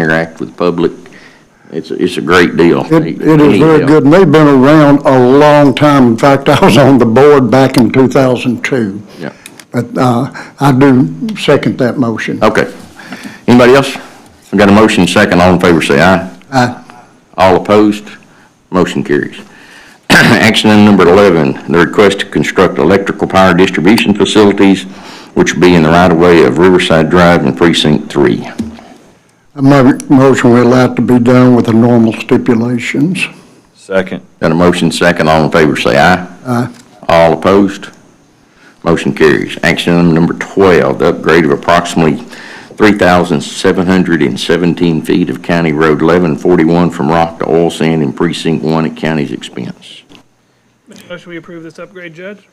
interact with the public. It's, a- it's a great deal. It, it is very good, and they've been around a long time. In fact, I was on the board back in 2002. Yeah. But uh, I do second that motion. Okay. Anybody else? I got a motion second. All in favor, say aye. Aye. All opposed? Motion carries. Action item number 11, the request to construct electrical power distribution facilities, which will be in the right-of-way of Riverside Drive and Precinct 3. I make a motion we allow it to be done with the normal stipulations. Second. Got a motion second, all in favor say aye. Aye. All opposed? Motion carries. Action item number 12, the upgrade of approximately 3,717 feet of County Road 1141 from rock to oil sand in Precinct 1 at county's expense. Motion we approve this upgrade, Judge?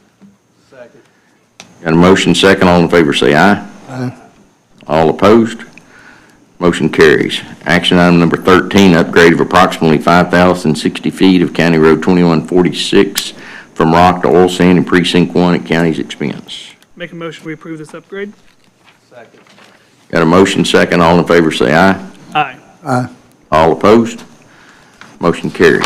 Got a motion second, all in favor say aye. Aye. All opposed? Motion carries. Action item number 13, upgrade of approximately 5,060 feet of County Road 2146 from rock to oil sand in Precinct 1 at county's expense. Make a motion we approve this upgrade? Got a motion second, all in favor say aye. Aye. All opposed? Motion carries.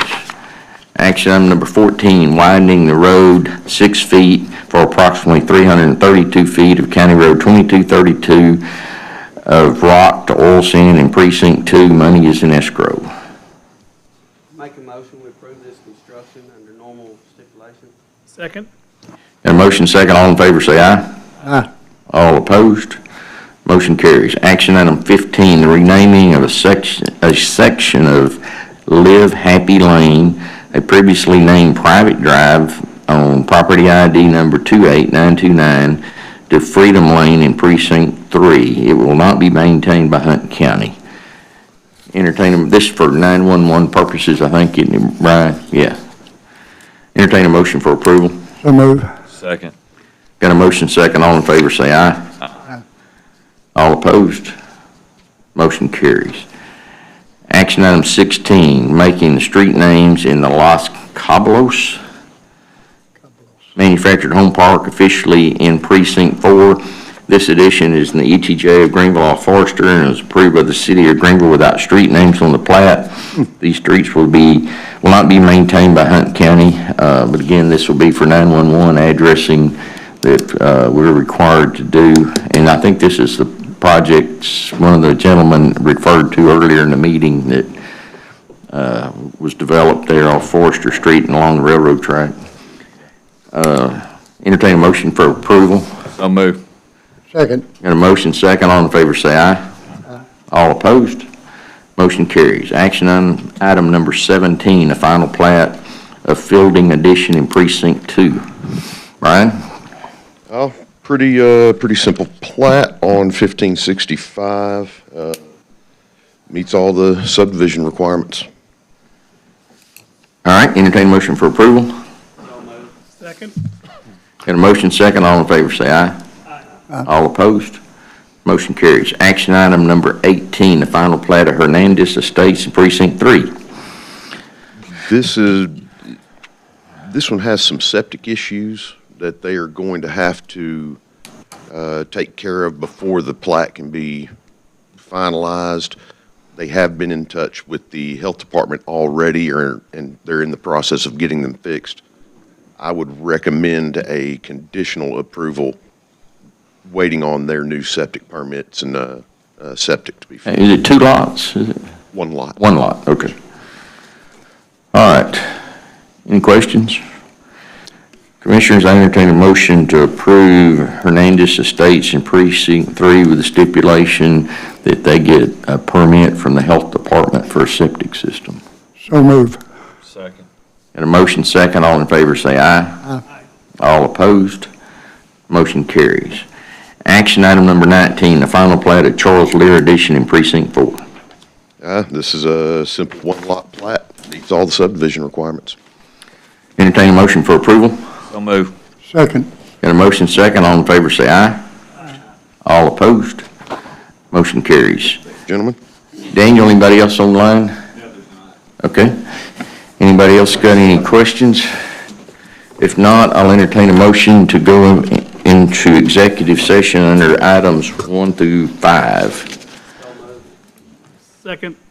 Action item number 14, widening the road six feet for approximately 332 feet of County Road 2232 of rock to oil sand in Precinct 2. Money is in escrow. Make a motion, we approve this construction under normal stipulations. Second? Got a motion second, all in favor say aye. Aye. All opposed? Motion carries. Action item 15, the renaming of a section, a section of Live Happy Lane, a previously named private drive on property ID number 28929 to Freedom Lane in Precinct 3. It will not be maintained by Hunt County. Entertain, a- this is for 911 purposes, I think, isn't it, Brian? Yeah. Entertain a motion for approval. So move. Second. Got a motion second, all in favor say aye. All opposed? Motion carries. Action item 16, making the street names in the Los Cabos Manufactured Home Park officially in Precinct 4. This edition is in the ETJ of Greenville off Forester and is approved by the city of Greenville without street names on the plat. These streets will be, will not be maintained by Hunt County, uh, but again, this will be for 911 addressing that uh, we're required to do. And I think this is the projects, one of the gentlemen referred to earlier in the meeting that uh, was developed there off Forester Street and along the railroad track. Uh, Entertain a motion for approval. So move. Second. Got a motion second, all in favor say aye. All opposed? Motion carries. Action item, item number 17, the final plat of Fielding Addition in Precinct 2. Brian? Oh, pretty, uh, pretty simple plat on fifteen sixty-five, uh, meets all the subdivision requirements. All right, entertain a motion for approval. So moved. Second? Got a motion second, all in favor say aye. All opposed? Motion carries. Action item number 18, the final plat of Hernandez Estates in Precinct 3. This is, this one has some septic issues that they are going to have to, uh, take care of before the plat can be finalized. They have been in touch with the health department already, or, and they're in the process of getting them fixed. I would recommend a conditional approval, waiting on their new septic permits and, uh, uh, septic to be, fi- Is it two lots? Is it one lot. One lot, okay. All right. Any questions? Commissioners, I entertain a motion to approve Hernandez Estates in Precinct 3 with the stipulation that they get a permit from the Health Department for a septic system. So move. Second. And a motion second, all in favor say aye. All opposed, motion carries. Action item number 19, the final plat of Charles Lear Edition in Precinct 4. Uh, this is a simple one-lot plat, meets all the subdivision requirements. Entertain a motion for approval? So move. Second. Got a motion second, all in favor say aye. All opposed, motion carries. Gentlemen? Daniel, anybody else online? Okay. Anybody else got any questions? If not, I'll entertain a motion to go in- into executive session under items one through five. Second.